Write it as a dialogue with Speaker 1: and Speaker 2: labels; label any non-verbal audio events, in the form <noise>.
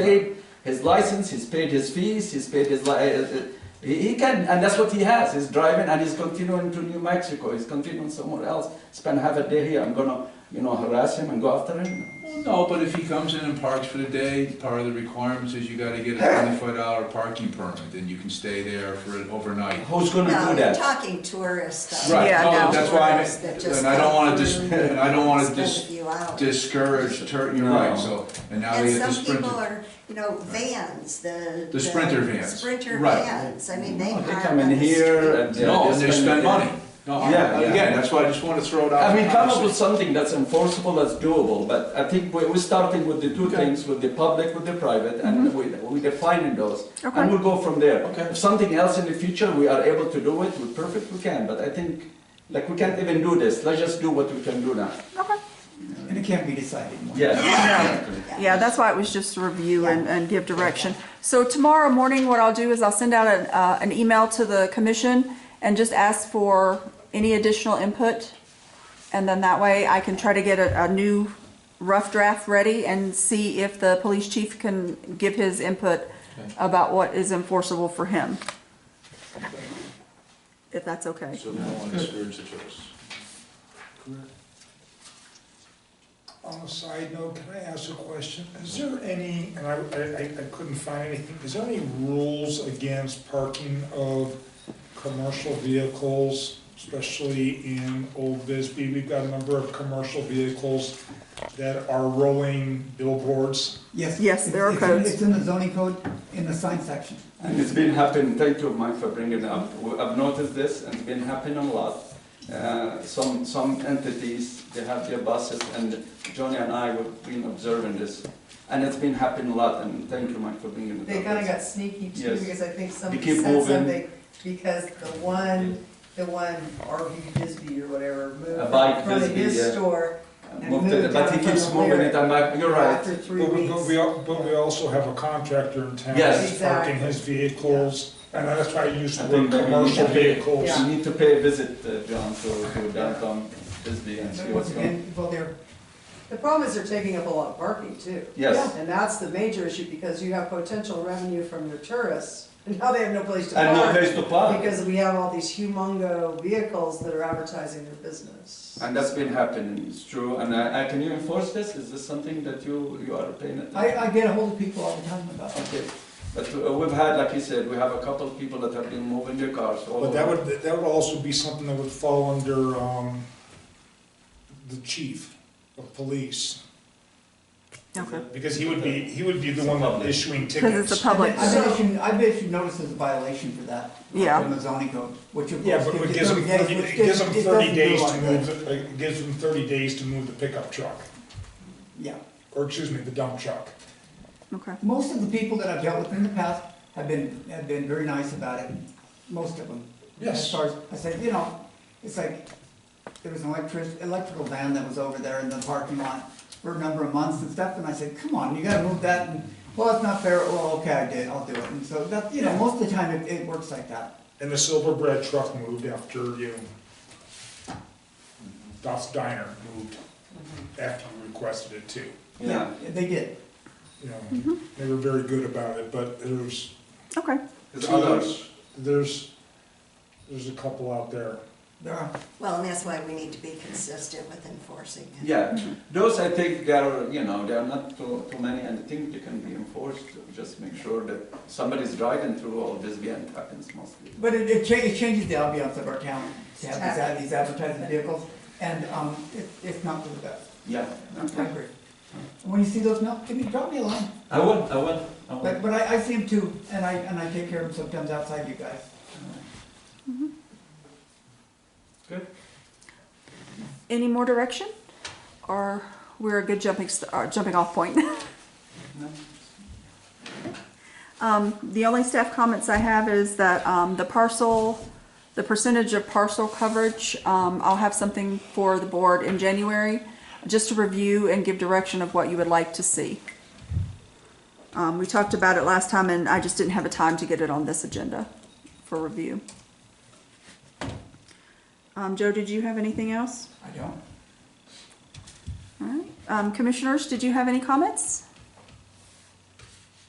Speaker 1: paid his license, he's paid his fees, he's paid his, li- uh, uh, he he can, and that's what he has, he's driving and he's continuing to New Mexico, he's continuing somewhere else, spend half a day here, I'm gonna, you know, harass him and go after him.
Speaker 2: Well, no, but if he comes in and parks for the day, part of the requirements is you gotta get a twenty-five dollar parking permit, and you can stay there for an overnight.
Speaker 1: Who's gonna
Speaker 3: No,
Speaker 1: do
Speaker 3: you're
Speaker 1: that?
Speaker 3: talking tourists. though.
Speaker 2: Right,
Speaker 4: Yeah,
Speaker 2: no,
Speaker 4: no.
Speaker 2: that's why I,
Speaker 3: Tourists that just
Speaker 2: and I don't wanna
Speaker 3: come
Speaker 2: dis, <laughs>
Speaker 3: and
Speaker 2: and I don't wanna
Speaker 3: spend a
Speaker 2: dis,
Speaker 3: few hours.
Speaker 2: discourage, tur- you're right, so, and now we
Speaker 3: And
Speaker 2: have the
Speaker 3: some people
Speaker 2: sprinter.
Speaker 3: are, you know, vans, the.
Speaker 2: The Sprinter vans.
Speaker 3: Sprinter
Speaker 2: Right.
Speaker 3: vans, I mean,
Speaker 1: No,
Speaker 3: they park
Speaker 1: They
Speaker 3: on
Speaker 1: come in
Speaker 3: the
Speaker 1: here
Speaker 3: street.
Speaker 1: and. they're-
Speaker 2: No, and they spend
Speaker 1: their-
Speaker 2: money. No,
Speaker 1: Yeah, yeah.
Speaker 2: again, that's why I just wanna throw it out.
Speaker 1: I mean, come up
Speaker 2: honestly.
Speaker 1: with something that's enforceable, that's doable, but I think we- we're starting with the two
Speaker 2: Okay.
Speaker 1: things, with the public, with the private, and we- we're defining those.
Speaker 4: Okay.
Speaker 1: And we'll go from there.
Speaker 2: Okay.
Speaker 1: If something else in the future, we are able to do it, we're perfect, we can, but I think, like, we can't even do this, let's just do what we can do now.
Speaker 4: Okay.
Speaker 5: And it can't be decided. in one
Speaker 1: Yeah.
Speaker 4: Yeah, that's why it was just a review and, and give direction. So tomorrow morning, what I'll do is I'll send out an, uh, an email to the commission and just ask for any additional input. And then that way I can try to get a, a new rough draft ready and see if the police chief can give his input about what is enforceable for him. If that's okay.
Speaker 2: So we don't wanna discourage the tourists.
Speaker 6: On a side note, can I ask a question? Is there any, and I, I, I couldn't find anything, is there any rules against parking of commercial vehicles, especially in Old Bisbee? We've got a number of commercial vehicles that are rolling billboards.
Speaker 5: Yes.
Speaker 4: Yes, there are
Speaker 5: It's- it's in-
Speaker 4: codes.
Speaker 5: It's in the zoning code, in the sign section.
Speaker 1: And it's been happening, thank you, Mike, for bringing it up. We- I've noticed this, and it's been happening a lot. Uh, Some, some entities, they have their buses, and Johnny and I, we've been observing this. And it's been happening a lot, and thank you, Mike, for bringing it up.
Speaker 7: They kinda got sneaky too,
Speaker 1: Yes.
Speaker 7: because I think
Speaker 1: They
Speaker 7: somebody
Speaker 1: keep
Speaker 7: said
Speaker 1: moving.
Speaker 7: something, because the one, the one RV Bisbee or whatever
Speaker 1: A bike
Speaker 7: moved from
Speaker 1: Bisbee, yeah.
Speaker 7: his store and
Speaker 1: Moved it,
Speaker 7: moved
Speaker 1: But
Speaker 7: out
Speaker 1: he
Speaker 7: from
Speaker 1: keeps
Speaker 7: the
Speaker 1: moving it,
Speaker 7: lyric
Speaker 1: I'm like, you're right.
Speaker 7: after three
Speaker 6: But we,
Speaker 7: weeks.
Speaker 6: but we, al- but we also have a contractor in town
Speaker 1: Yes.
Speaker 6: that's parking his vehicles, and that's why I use
Speaker 1: I
Speaker 6: the
Speaker 1: think
Speaker 6: word
Speaker 1: we need
Speaker 6: commercial
Speaker 1: to-
Speaker 6: vehicles.
Speaker 1: You need to pay a visit, uh, John, to to downtown Bisbee and see what's going on.
Speaker 7: And, well, they're, the problem is they're taking up a lot of parking too.
Speaker 1: Yes.
Speaker 7: And that's the major issue, because you have potential revenue from your tourists, <laughs> and now they have no place to park.
Speaker 1: And no place to park,
Speaker 7: Because we have all these humongo vehicles that are advertising their business.
Speaker 1: and that's been happening, it's true. And I, I- can you enforce this? Is this something that you, you are paying attention?
Speaker 5: I, I get ahold of people all the time about it.
Speaker 1: Okay, but uh, we've had, like you said, we have a couple of people that have been moving their cars all
Speaker 6: But that
Speaker 1: over.
Speaker 6: would, that would also be something that would fall under, um, the chief of police.
Speaker 4: Okay.
Speaker 6: Because he would be, he would be the one issuing
Speaker 4: Because it's
Speaker 6: tickets.
Speaker 4: a public,
Speaker 5: <laughs> I bet issued, I bet you notice there's a violation for that.
Speaker 4: Yeah.
Speaker 5: In the zoning code, which of
Speaker 6: Yeah,
Speaker 5: course.
Speaker 6: but it gives him,
Speaker 5: 30
Speaker 6: thirty-
Speaker 5: days, which doesn't- it doesn't
Speaker 6: it gives him thirty days
Speaker 5: do
Speaker 6: to
Speaker 5: like
Speaker 6: move,
Speaker 5: that.
Speaker 6: the- it gives him thirty days to move the pickup truck,
Speaker 5: Yeah.
Speaker 6: or excuse me, the dump truck.
Speaker 4: okay.
Speaker 5: Most of the people that I've dealt with in the past have been, have been very nice about it, most of them. As
Speaker 6: Yes.
Speaker 5: far as, I said, you know, it's like, there was an electric, electrical van that was over there in the parking lot for a number of months and stuff, and I said, come on, you gotta move that, and, well, it's not fair, well, okay, I did, I'll do it, and so that, you know, most of the time it, it works like that.
Speaker 6: And the silver bread truck moved after you, Duff's Diner moved after you requested it too.
Speaker 1: Yeah,
Speaker 5: They did,
Speaker 6: You know, they were very good about it, but there's,
Speaker 4: Okay.
Speaker 1: because others,
Speaker 6: there's- there's, there's a couple out there.
Speaker 5: there are,
Speaker 3: Well, and that's why we need to be consistent with enforcing it.
Speaker 1: yeah,
Speaker 6: Mm-hmm.
Speaker 1: those I think they are, you know, they are not too, too many, and I think they can be enforced. Just make sure that somebody's driving through all this, and it happens mostly.
Speaker 5: but it, it cha- it changes the ambiance of our town, to have these ad- these advertising vehicles, and, um, it, it's not for the best,
Speaker 1: Yeah,
Speaker 5: I agree. And When you see those, no, give me, drop me a line,
Speaker 1: I will, I will, I
Speaker 5: but,
Speaker 1: will.
Speaker 5: but I, I see them too, and I, and I take care of them sometimes outside you guys.
Speaker 4: Any more direction? Or we're a good jumping, st- uh, jumping off point? <laughs> Um, the only staff comments I have is that, um, the parcel, the percentage of parcel coverage, um, I'll have something for the board in January, just to review and give direction of what you would like to see. Um, we talked about it last time and I just didn't have a time to get it on this agenda for review. Um, Joe, did you have anything else?
Speaker 5: I don't.
Speaker 4: All right. Um, commissioners, did you have any comments?